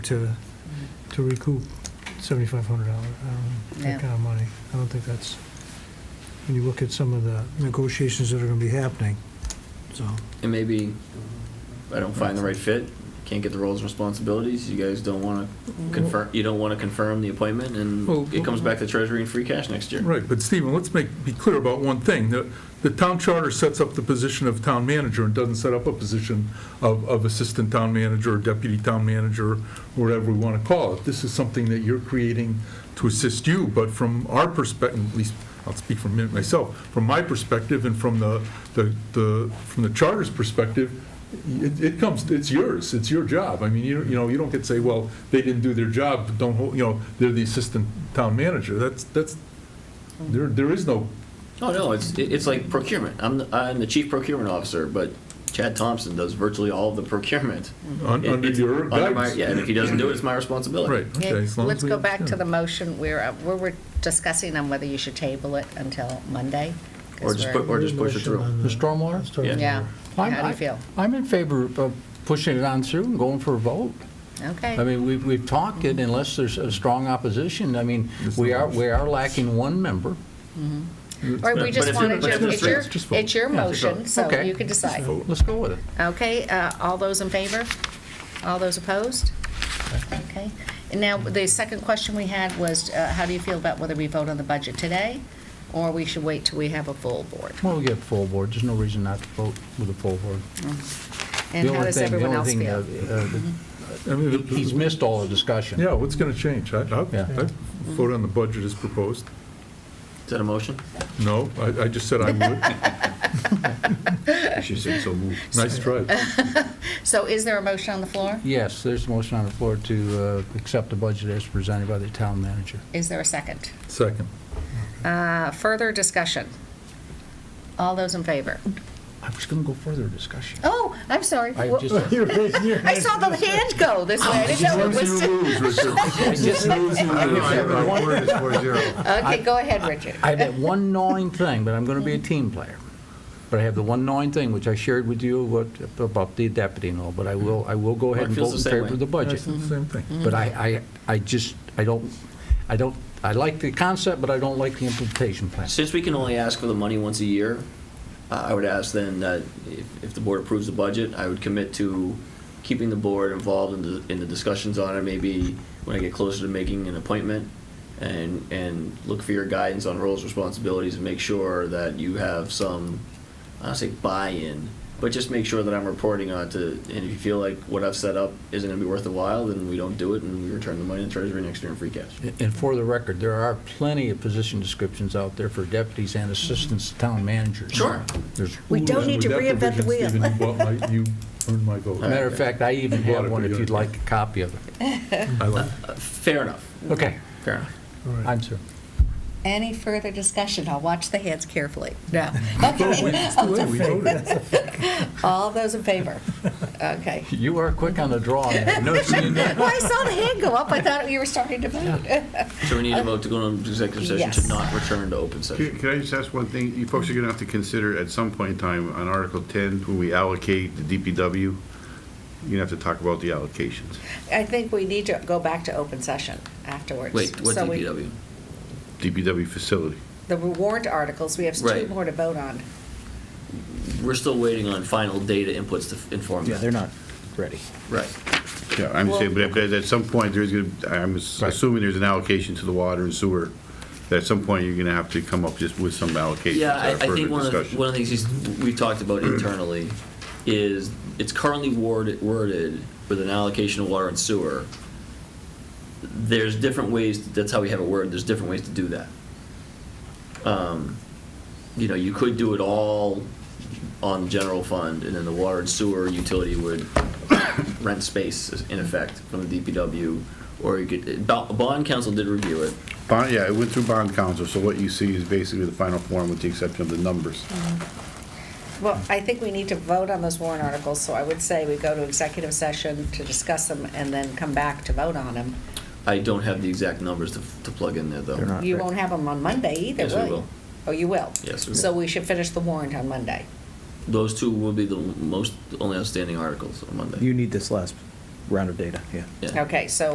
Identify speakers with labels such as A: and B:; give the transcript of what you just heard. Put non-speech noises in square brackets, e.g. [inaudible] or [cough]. A: to, to recoup $7,500, um,
B: Yeah.
A: that kind of money. I don't think that's, when you look at some of the negotiations that are going to be happening, so.
C: And maybe I don't find the right fit, can't get the roles and responsibilities, you guys don't want to confirm, you don't want to confirm the appointment,
D: Well,
C: and it comes back to treasury and free cash next year.
D: Right, but Stephen, let's make, be clear about one thing. The, the town charter sets up the position of town manager and doesn't set up a position of, of assistant town manager or deputy town manager, whatever we want to call it. This is something that you're creating to assist you, but from our perspective, at least, I'll speak for a minute myself, from my perspective and from the, the, the, from the charter's perspective, it, it comes, it's yours, it's your job. I mean, you, you know, you don't get to say, well, they didn't do their job, don't, hold you know, they're the assistant town manager. That's, that's, there, there is no,
C: Oh, no, it's, it- it's like procurement. I'm, the- I'm the chief procurement officer, but Chad Thompson does virtually all of the procurement.
D: un-
C: It-
D: under
C: it's
D: your
C: under my-
D: guidance.
C: Yeah, and if he doesn't do it, it's my responsibility.
D: Right, okay.
B: Okay,
D: as long as
B: Let's
D: we
B: go back to the
D: understand.
B: motion, we're, uh, we're we're discussing on whether you should table it until Monday. 'cause
C: Or just
B: we're-
C: put, or just push it through.
A: Motion on
E: The stormwater?
A: Stormwater.
B: Yeah, how
E: I'm-
B: do
E: I-
B: you feel?
E: I'm in favor of pushing it on through and going for a vote. I
B: Okay,
E: mean, we've, we've talked it unless there's a strong opposition. I mean,
D: There's
E: we
D: no
E: are, we are lacking one member.
B: or we just
C: it's
B: want
C: just-
B: to,
C: but
B: it's
C: it's
B: your,
C: just-
D: just vote.
B: it's your motion,
C: vote.
B: so
E: Okay.
B: you can decide.
E: Let's go with it.
B: Okay, uh, all those in favor? All those opposed? Okay, and now, the second question we had was, uh, how do you feel about whether we vote on the budget today, or we should wait till we have a full board?
E: Well, we get full board. There's no reason not to vote with a full board.
B: And
E: The
B: how
E: only
B: does
E: thing- the
B: everyone
E: only
B: else
E: thing,
B: feel?
E: uh, uh,
D: I mean,
E: that- He's missed all the discussion.
D: Yeah, what's going to change? I, I
E: Yeah.
D: I'd vote on the budget as proposed.
C: Is that a motion?
D: No, I, I just
B: [laughs]
D: said I would. [laughs] She said so moved. Nice try.
B: So is there a motion on the floor?
E: Yes, there's a motion on the floor to uh, accept the budget as presented by the town manager.
B: Is there a second?
D: Second.
B: Uh, Further discussion? All those in favor?
E: I was going to go further discussion.
B: Oh, I'm sorry.
E: I
B: Wha-
E: just,
B: I saw
E: [laughs]
B: the hand go this way. I didn't know it was. [laughs]
E: I just,
B: Okay, go ahead, Richard.
E: I have that one gnawing thing, but I'm going to be a team player. But I have the one gnawing thing, which I shared with you what- about the deputy and all, but I will, I will go
C: Mark
E: ahead and
C: Mm-hmm. feels the
E: vote in
C: same
E: favor
C: way.
E: of the budget.
D: That's
A: Mm-hmm.
D: the same thing.
E: But I, I, I just, I don't, I don't, I like the concept, but I don't like the implementation plan.
C: Since we can only ask for the money once a year, uh, I I would ask then that if, if the board approves the budget, I would commit to keeping the board involved in the, in the discussions on it, maybe when I get closer to making an appointment, and, and look for your guidance on roles, responsibilities, and make sure that you have some, I don't say buy-in, but just make sure that I'm reporting on to, and if you feel like what I've set up isn't gonna be worth the while, then we don't do it, and we return the money to the treasury next year in free cash.
E: And for the record, there are plenty of position descriptions out there for deputies and assistants to town managers.
C: Sure.
E: There's-
B: We don't need to
D: With that
B: reinvent the
D: provision,
B: wheel.
D: Stephen, you bought my- You earned my vote.
E: Matter of fact, I even
D: You bought
E: have
D: it,
E: one
D: but
E: if
D: you
E: you'd
D: don't-
E: like a copy of it.
D: I
B: [laughs]
D: like it.
C: Uh, Fair enough,
E: Okay,
C: fair enough.
A: All right.
E: I'm sure.
B: Any further discussion? I'll watch the hands carefully.
E: [laughs]
B: No.
D: Vote, we-
B: Okay.
D: it's the way we voted.
B: [laughs] All those in favor?
E: [laughs]
B: Okay.
E: You are quick on the draw. on that. No, it's-
B: [laughs] Well, I saw the hand go up. I thought you were starting to vote.
C: So we need a vote to go into executive session
B: Uh, Yes.
C: to not return to open session.
F: Can can I just ask one thing? You folks are going to have to consider at some point in time on Article 10, when we allocate the DPW, you're going to have to talk about the allocations.
B: [laughs] I think we need to go back to open session afterwards.
C: Wait, what
B: So we-
C: DPW?
F: DPW facility.
B: The warrant articles, we have two
C: Right.
B: more to vote on.
C: We're still waiting on final data inputs to inform that.
E: not ready.
C: Right.
F: Yeah, I'm just saying, but at- but at some point, there's going to, I'm ass- assuming there's an allocation to the water and sewer, that at some point, you're going to have to come up just with some allocations.
C: Yeah, I, I
F: uh,
C: think
F: further
C: one of, the-
F: discussion.
C: one of the things he's- we've talked about internally is it's currently worded, worded with an allocation of water and sewer. There's different ways, that's how we have it worded, there's different ways to do that. Um, You know, you could do it all on general fund and then the water and sewer utility would rent space in effect from the DPW. Or you could, Bo- bond council did review it.
F: Bond, yeah, it went through bond council, so what you see is basically the final form with the exception of the numbers.
B: Well, I think we need to vote on those warrant articles, so I would say we go to executive session to discuss them and then come back to vote on them.
C: I don't have the exact numbers to, to plug in there though. They're
B: You won't have them on Monday either,
C: Yes, we
B: will you?
C: will.
B: Oh, you will?
C: Yes, we
B: So
C: will.
B: we should finish the warrant on Monday.
C: Those two will be the most, only outstanding articles on Monday.
G: You need this last
H: round of data, yeah.
I: Yeah.
G: Okay, so